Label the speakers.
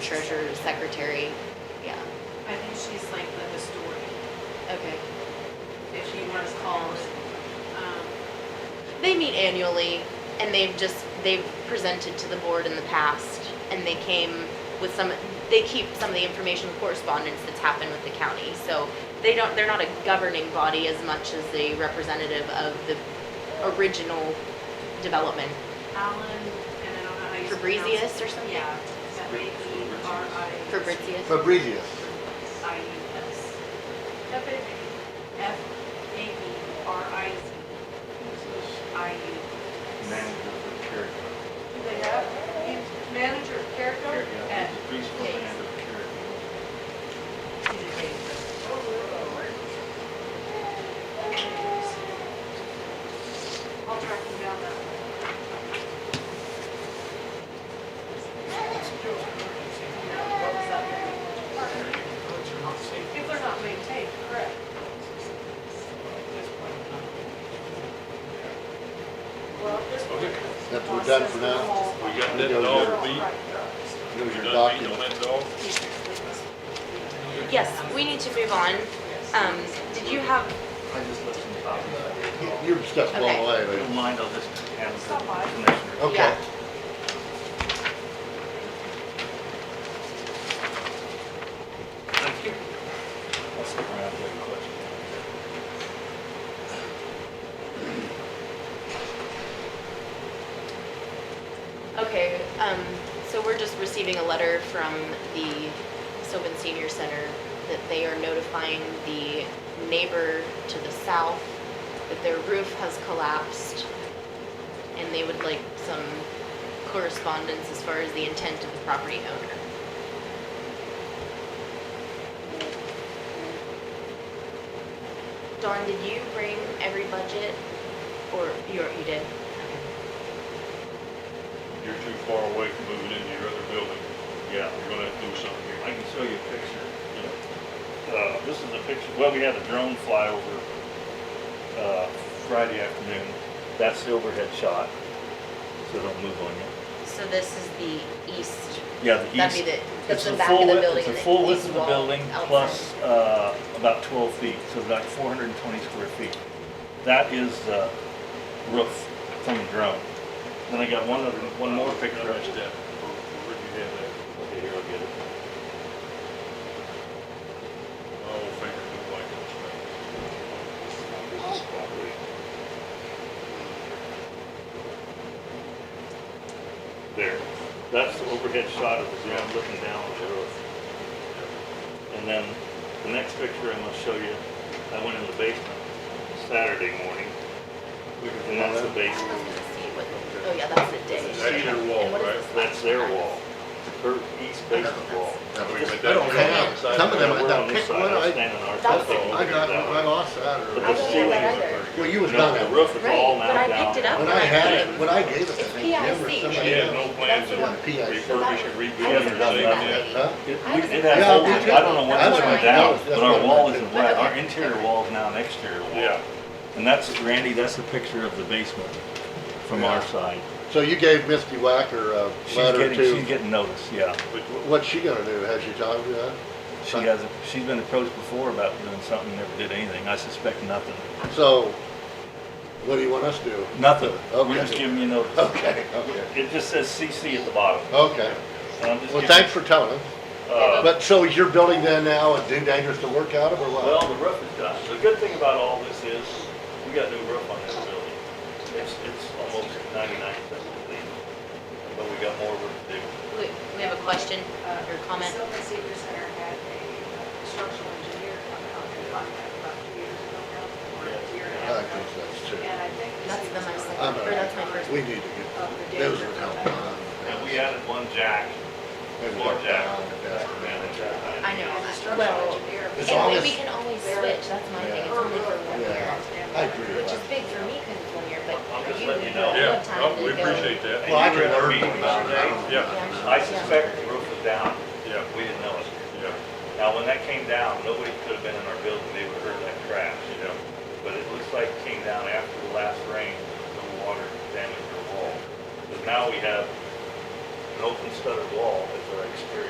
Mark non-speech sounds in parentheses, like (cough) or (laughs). Speaker 1: treasurer, secretary, yeah,
Speaker 2: I think she's like the historian,
Speaker 1: okay.
Speaker 2: if you want to call it. Um,
Speaker 1: They meet annually and they've just, they've presented to the board in the past and they came with some, they keep some of the information correspondence that's happened with the county. So they don't, they're not a governing body as much as the representative of the original development.
Speaker 2: Alan, and I don't know how you pronounce
Speaker 1: Fabrizius or
Speaker 2: it.
Speaker 1: something?
Speaker 2: Yeah, is that right? E-R-I-
Speaker 1: Fabrizius?
Speaker 3: Fabrizius.
Speaker 2: I-U-S. F-A-B-R-I-Z-I-U.
Speaker 4: manager for Cherokee.
Speaker 5: Do they have, he's manager of Carrico?
Speaker 4: Yeah, he's the preschool
Speaker 2: Yes.
Speaker 4: manager for Cherokee.
Speaker 2: I'll track him down that What was that? If they're not maintained, correct. Well, this
Speaker 6: Okay.
Speaker 3: That's what we're done for now.
Speaker 6: We got that
Speaker 3: Go
Speaker 6: dog
Speaker 3: there.
Speaker 6: beat,
Speaker 3: Those
Speaker 6: we done
Speaker 3: are
Speaker 6: beat on
Speaker 3: documents.
Speaker 6: that dog.
Speaker 1: Yes, we need to move on. Um, did you have,
Speaker 7: I just listened to Bobby.
Speaker 3: Your stuff's blown
Speaker 1: Okay.
Speaker 3: away,
Speaker 7: I
Speaker 3: man.
Speaker 7: don't mind, I'll just have the commissioner.
Speaker 3: Okay.
Speaker 1: Yeah.
Speaker 7: Thank you.
Speaker 6: I'll stick around for the question.
Speaker 1: okay, um, so we're just receiving a letter from the Sylvan Senior Center that they are notifying the neighbor to the south that their roof has collapsed and they would like some correspondence as far as the intent of the property owner. Dawn, did you bring every budget or you, you did? Okay.
Speaker 6: You're too far away from moving into your other building. Yeah, you're gonna have to do something here.
Speaker 7: I can show you a picture.
Speaker 6: Yeah. Uh, this is a picture, well, we had a drone flyover, uh, Friday afternoon. That's the overhead shot, so don't move on you.
Speaker 1: So this is the east,
Speaker 6: Yeah, the east.
Speaker 1: that'd be the, that's
Speaker 6: It's
Speaker 1: the
Speaker 6: the
Speaker 1: back of
Speaker 6: full
Speaker 1: the
Speaker 6: width,
Speaker 1: building.
Speaker 6: it's the
Speaker 1: and
Speaker 6: full width
Speaker 1: east
Speaker 6: of the
Speaker 1: wall
Speaker 6: building
Speaker 1: outside.
Speaker 6: plus, uh, about twelve feet, so about four hundred and twenty square feet. That is the roof from the drone. Then I got one other, one more picture. Where'd you have that? Okay, here, I'll get it. My old finger looked like it was fake. This is probably- There, that's the overhead shot of the drone looking down on the roof. And then the next picture I'm gonna show you, I went in the basement Saturday morning,
Speaker 3: We can
Speaker 6: and that's the
Speaker 1: I don't know
Speaker 3: follow that.
Speaker 6: basement.
Speaker 1: if you can see what- Oh, yeah, that's the
Speaker 6: That's
Speaker 1: ditch.
Speaker 6: their
Speaker 1: And
Speaker 6: wall,
Speaker 1: what is
Speaker 6: right?
Speaker 1: this?
Speaker 6: That's their wall, her east basement wall.
Speaker 3: Yeah, we
Speaker 6: Just-
Speaker 3: I don't have, some of them,
Speaker 6: We're
Speaker 3: I
Speaker 6: on
Speaker 3: got
Speaker 6: this
Speaker 3: picked
Speaker 6: side,
Speaker 3: one,
Speaker 6: I'm
Speaker 3: I,
Speaker 6: standing on our
Speaker 1: That's-
Speaker 6: side,
Speaker 3: I got, I lost that
Speaker 6: But
Speaker 1: I don't
Speaker 6: the
Speaker 3: or.
Speaker 1: know ceiling
Speaker 6: ceiling
Speaker 1: that either.
Speaker 6: is up there.
Speaker 3: Well, you was
Speaker 6: No,
Speaker 3: done
Speaker 6: The
Speaker 3: that
Speaker 6: roof is
Speaker 1: Right,
Speaker 6: all
Speaker 1: but
Speaker 6: now
Speaker 1: I
Speaker 6: down.
Speaker 1: picked it up.
Speaker 3: When I had it, when I gave it, I
Speaker 1: It's
Speaker 3: think Jim or
Speaker 1: PIC.
Speaker 3: somebody
Speaker 1: Yeah,
Speaker 4: Yeah, no
Speaker 3: else.
Speaker 4: plans
Speaker 1: That's
Speaker 4: to
Speaker 1: the one.
Speaker 3: PIC.
Speaker 4: refurbish and rebuild
Speaker 1: I
Speaker 4: or
Speaker 1: was
Speaker 6: Yeah,
Speaker 4: anything
Speaker 1: with
Speaker 6: that's
Speaker 1: that lady.
Speaker 6: right.
Speaker 3: Huh?
Speaker 1: I
Speaker 6: It- We
Speaker 1: was
Speaker 6: did
Speaker 1: in-
Speaker 6: have,
Speaker 3: Yeah, we
Speaker 6: holes. I don't know
Speaker 3: did.
Speaker 6: when
Speaker 3: I
Speaker 6: this
Speaker 3: don't
Speaker 6: went
Speaker 3: know.
Speaker 6: down, but our wall
Speaker 3: That's
Speaker 6: isn't
Speaker 1: what I
Speaker 6: right, our
Speaker 1: did.
Speaker 6: interior wall's now an exterior wall.
Speaker 4: Yeah.
Speaker 6: And that's, Randy, that's the picture of the basement from our
Speaker 3: Yeah.
Speaker 6: side.
Speaker 3: So you gave Misty Whacker a
Speaker 6: She's
Speaker 3: letter
Speaker 6: getting,
Speaker 3: to,
Speaker 6: she's getting notice, yeah.
Speaker 3: wh- what's she gonna do? Has she talked to that?
Speaker 6: She hasn't, she's been approached before about doing something, never did anything, I suspect nothing,
Speaker 3: So, what do you want us to do? (laughs)
Speaker 6: nothing.
Speaker 3: Okay.
Speaker 6: We're just giving you notice.
Speaker 3: Okay, okay,
Speaker 6: It just says CC at the bottom.
Speaker 3: okay.
Speaker 6: And I'm just
Speaker 3: Well,
Speaker 6: giving-
Speaker 3: thanks for telling us.
Speaker 6: uh,
Speaker 3: But so is your building then now a do dangerous to work out of or what?
Speaker 6: Well, the roof is done. The good thing about all this is, we got new roof on that building. It's, it's almost ninety-nine percent complete, but we got more work to do.
Speaker 1: We we have a question uh, or comment?
Speaker 2: Sylvan Senior Center had a uh, structural engineer come out and find that about two years ago now, or a year and a
Speaker 3: I
Speaker 2: half ago.
Speaker 3: think that's true.
Speaker 2: And I think. that
Speaker 1: That's
Speaker 2: she
Speaker 1: the
Speaker 2: was
Speaker 1: my second-
Speaker 2: on
Speaker 3: or
Speaker 1: that's my first.
Speaker 3: We need to
Speaker 2: Of the
Speaker 3: get, those
Speaker 2: danger.
Speaker 3: would help.
Speaker 6: And we added one jack, floor jack.
Speaker 1: I
Speaker 6: I
Speaker 1: know.
Speaker 2: And the
Speaker 1: I-
Speaker 2: structural
Speaker 1: Well,
Speaker 2: engineer.
Speaker 3: As long
Speaker 1: and
Speaker 3: as-
Speaker 1: we can always switch, that's my thing, it's
Speaker 2: Or-
Speaker 1: only for one year.
Speaker 3: Yeah, I agree with
Speaker 1: Which is
Speaker 3: that.
Speaker 1: big for me, because it's one year, but
Speaker 6: I'm
Speaker 1: for
Speaker 6: just
Speaker 1: you,
Speaker 6: letting you
Speaker 1: you
Speaker 6: know.
Speaker 1: have
Speaker 4: Yeah,
Speaker 1: time
Speaker 4: oh,
Speaker 1: to
Speaker 4: we
Speaker 1: go.
Speaker 4: appreciate that.
Speaker 3: Well, I
Speaker 6: And you were
Speaker 3: can
Speaker 6: at our
Speaker 3: learn
Speaker 6: meeting
Speaker 3: about it. I
Speaker 6: yesterday.
Speaker 3: don't-
Speaker 4: Yeah.
Speaker 6: I suspect the roof was down.
Speaker 4: Yeah,
Speaker 6: We didn't know it.
Speaker 4: yeah.
Speaker 6: Now, when that came down, nobody could have been in our building, they would have heard that crash, you know? But it looks like it came down after the last rain, the water damaged our wall. But now we have an open studded wall as our exterior